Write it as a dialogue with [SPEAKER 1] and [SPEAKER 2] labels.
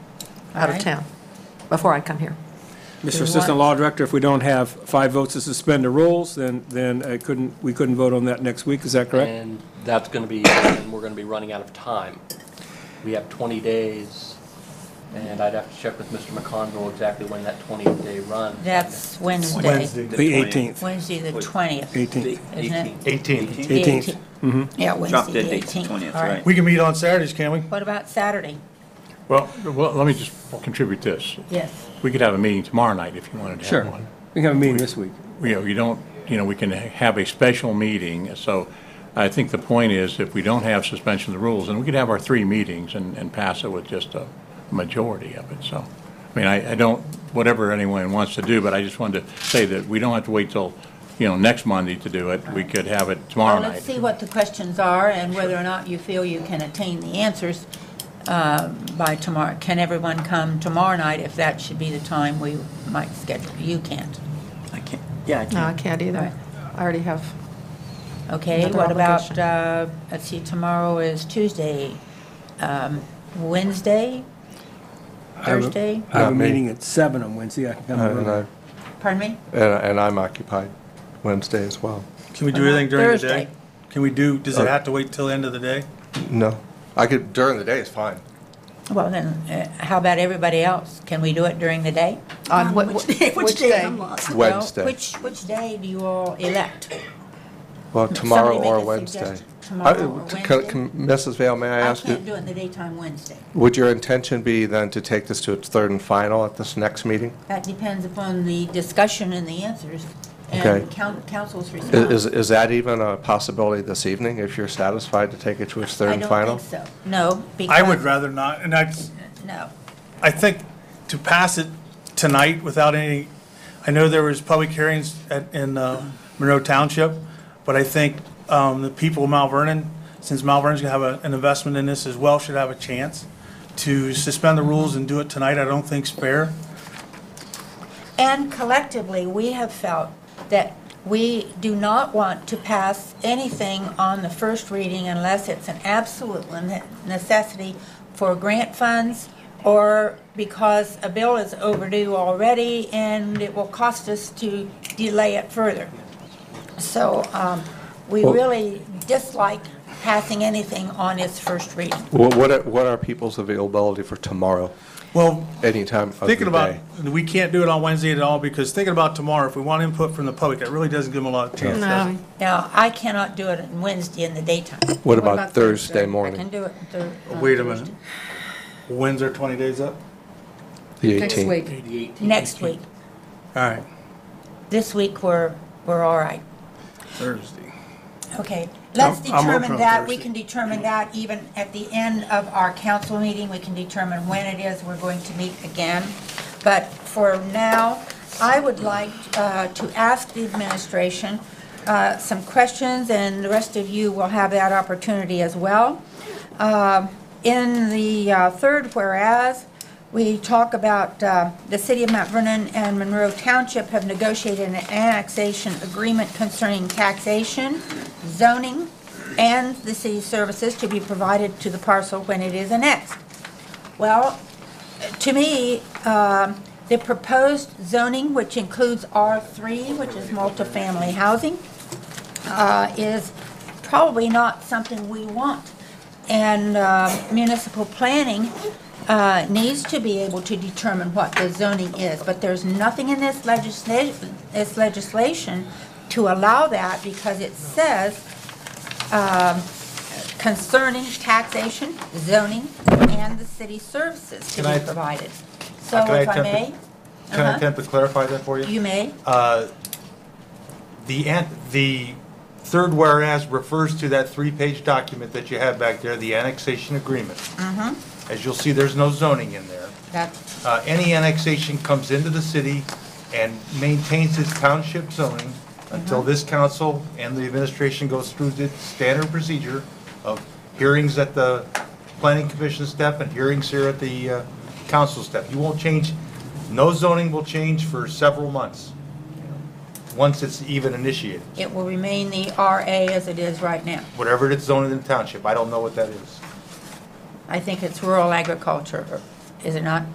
[SPEAKER 1] out of
[SPEAKER 2] Right.
[SPEAKER 1] town, before I come here.
[SPEAKER 2] we
[SPEAKER 3] Mr.
[SPEAKER 2] want-
[SPEAKER 3] Assistant Law Director, if we don't have five votes to suspend the rules, then, then I couldn't, we couldn't vote on that next week, is that correct?
[SPEAKER 4] And that's going to be, and we're going to be running out of time. We have 20 days, and I'd have to check with Mr. McConville exactly when that 20-day run.
[SPEAKER 2] That's Wednesday.
[SPEAKER 5] Wednesday.
[SPEAKER 3] The 18th,
[SPEAKER 2] Wednesday, the 20th.
[SPEAKER 3] 18th,
[SPEAKER 2] Isn't it?
[SPEAKER 5] 18th.
[SPEAKER 3] 18th.
[SPEAKER 2] Yeah,
[SPEAKER 6] Drop
[SPEAKER 2] Wednesday,
[SPEAKER 6] dead
[SPEAKER 2] the
[SPEAKER 6] date's the
[SPEAKER 2] 18th.
[SPEAKER 6] 20th,
[SPEAKER 2] All
[SPEAKER 6] right?
[SPEAKER 5] We can meet on Saturdays, can we?
[SPEAKER 2] What about Saturday?
[SPEAKER 7] Well, well, let me just contribute this.
[SPEAKER 2] Yes.
[SPEAKER 7] We could have a meeting tomorrow night if you wanted to
[SPEAKER 3] Sure.
[SPEAKER 7] have one.
[SPEAKER 3] We can have a meeting this week.
[SPEAKER 7] You know, you don't, you know, we can have a special meeting, so I think the point is, if we don't have suspension of the rules, then we could have our three meetings and, and pass it with just a majority of it, so. I mean, I, I don't, whatever anyone wants to do, but I just wanted to say that we don't have to wait till, you know, next Monday to do it. We could have it tomorrow
[SPEAKER 2] Well,
[SPEAKER 7] night.
[SPEAKER 2] let's see what the questions are and whether or not you feel you can attain the answers uh, by tomorrow. Can everyone come tomorrow night if that should be the time we might schedule? You can't.
[SPEAKER 6] I can't, yeah, I
[SPEAKER 1] No, I
[SPEAKER 6] can't.
[SPEAKER 1] can't either. I already have,
[SPEAKER 2] Okay,
[SPEAKER 1] Another
[SPEAKER 2] what about,
[SPEAKER 1] obligation.
[SPEAKER 2] uh, let's see, tomorrow is Tuesday, um, Wednesday, Thursday,
[SPEAKER 3] I have a
[SPEAKER 8] Not me.
[SPEAKER 3] meeting at seven on Wednesday, I can come.
[SPEAKER 8] Uh, And I,
[SPEAKER 3] early.
[SPEAKER 2] pardon me?
[SPEAKER 8] and I- and I'm occupied Wednesday as well.
[SPEAKER 5] Can we do anything during the day?
[SPEAKER 2] Thursday.
[SPEAKER 5] Can we do, does it have to wait till the end of the day?
[SPEAKER 8] No, I could, during the day is fine.
[SPEAKER 2] Well, then, uh, how about everybody else? Can we do it during the day?
[SPEAKER 1] on what, which day?
[SPEAKER 2] Well,
[SPEAKER 8] Wednesday.
[SPEAKER 2] Which, which day do you all elect?
[SPEAKER 8] Well, tomorrow
[SPEAKER 2] somebody make
[SPEAKER 8] or
[SPEAKER 2] a
[SPEAKER 8] Wednesday.
[SPEAKER 2] suggestion. Tomorrow
[SPEAKER 8] I-
[SPEAKER 2] or
[SPEAKER 8] to-
[SPEAKER 2] Wednesday?
[SPEAKER 8] can- Mrs. Vale, may I
[SPEAKER 2] I
[SPEAKER 8] ask, you-
[SPEAKER 2] can't do it in the daytime Wednesday.
[SPEAKER 8] would your intention be then to take this to its third and final at this next meeting?
[SPEAKER 2] That depends upon the discussion and the answers
[SPEAKER 8] Okay.
[SPEAKER 2] and coun- council's
[SPEAKER 8] I-
[SPEAKER 2] response.
[SPEAKER 8] Is, is that even a possibility this evening, if you're satisfied to take it to its third
[SPEAKER 2] I
[SPEAKER 8] and
[SPEAKER 2] don't
[SPEAKER 8] final?
[SPEAKER 2] think so. No, because. uh,
[SPEAKER 5] I would rather not, and I,
[SPEAKER 2] No.
[SPEAKER 5] I think to pass it tonight without any, I know there was public hearings at, in uh, Monroe Township, but I think um, the people of Mount Vernon, since Mount Vernon's gonna have a- an investment in this as well, should have a chance to suspend the rules and do it tonight, I don't think's fair.
[SPEAKER 2] And collectively, we have felt that we do not want to pass anything on the first reading unless it's an absolute ne- necessity for grant funds or because a bill is overdue already and it will cost us to delay it further. So um, we really dislike passing anything on its first reading.
[SPEAKER 8] Wha- What are, what are people's availability for tomorrow,
[SPEAKER 5] Well,
[SPEAKER 8] any time of the
[SPEAKER 5] thinking about,
[SPEAKER 8] day?
[SPEAKER 5] we can't do it on Wednesday at all, because thinking about tomorrow, if we want input from the public, that really doesn't give them a lot of chance, does it?
[SPEAKER 1] No,
[SPEAKER 2] Now, I cannot do it on Wednesday in the daytime.
[SPEAKER 8] What about Thursday
[SPEAKER 2] I can
[SPEAKER 8] morning,
[SPEAKER 2] do it Thur- on
[SPEAKER 5] Wait a minute.
[SPEAKER 2] Thursday.
[SPEAKER 5] When's our 20 days up?
[SPEAKER 8] the 18th?
[SPEAKER 1] next week.
[SPEAKER 2] Next week.
[SPEAKER 5] All right,
[SPEAKER 2] This week, we're, we're all right.
[SPEAKER 5] Thursday.
[SPEAKER 2] Okay, let's
[SPEAKER 5] I'm- I'm open
[SPEAKER 2] determine
[SPEAKER 5] on
[SPEAKER 2] that, we
[SPEAKER 5] Thursday.
[SPEAKER 2] can determine that even at the end of our council meeting, we can determine when it is we're going to meet again. But for now, I would like uh, to ask the administration uh, some questions, and the rest of you will have that opportunity as well. Um, In the uh, third whereas, we talk about uh, the city of Mount Vernon and Monroe Township have negotiated an annexation agreement concerning taxation, zoning, and the city services to be provided to the parcel when it is annexed. Well, to me, um, the proposed zoning, which includes R3, which is multifamily housing, uh, is probably not something we want. And uh, municipal planning uh, needs to be able to determine what the zoning is. But there's nothing in this legislation, this legislation to allow that because it says um, concerning taxation, zoning, and the city services to
[SPEAKER 5] Can I-
[SPEAKER 2] be provided. So
[SPEAKER 5] Can I
[SPEAKER 2] if I
[SPEAKER 5] attempt
[SPEAKER 2] may,
[SPEAKER 5] to- Can I
[SPEAKER 2] Uh-huh.
[SPEAKER 5] attempt to clarify that for you?
[SPEAKER 2] you may,
[SPEAKER 5] Uh, The, an- the third whereas refers to that three-page document that you have back there, the annexation agreement.
[SPEAKER 2] Mm-hmm.
[SPEAKER 5] As you'll see, there's no zoning in there.
[SPEAKER 2] that's,
[SPEAKER 5] Uh, Any annexation comes into the city and maintains its township zoning until this council and the administration goes through the standard procedure of hearings at the planning commission step and hearings here at the uh, council step. You won't change, no zoning will change for several months, once it's even initiated,
[SPEAKER 2] it will remain the RA as it is right now.
[SPEAKER 5] whatever it's zoned in the township. I don't know what that is.
[SPEAKER 2] I think it's rural agriculture, is it not?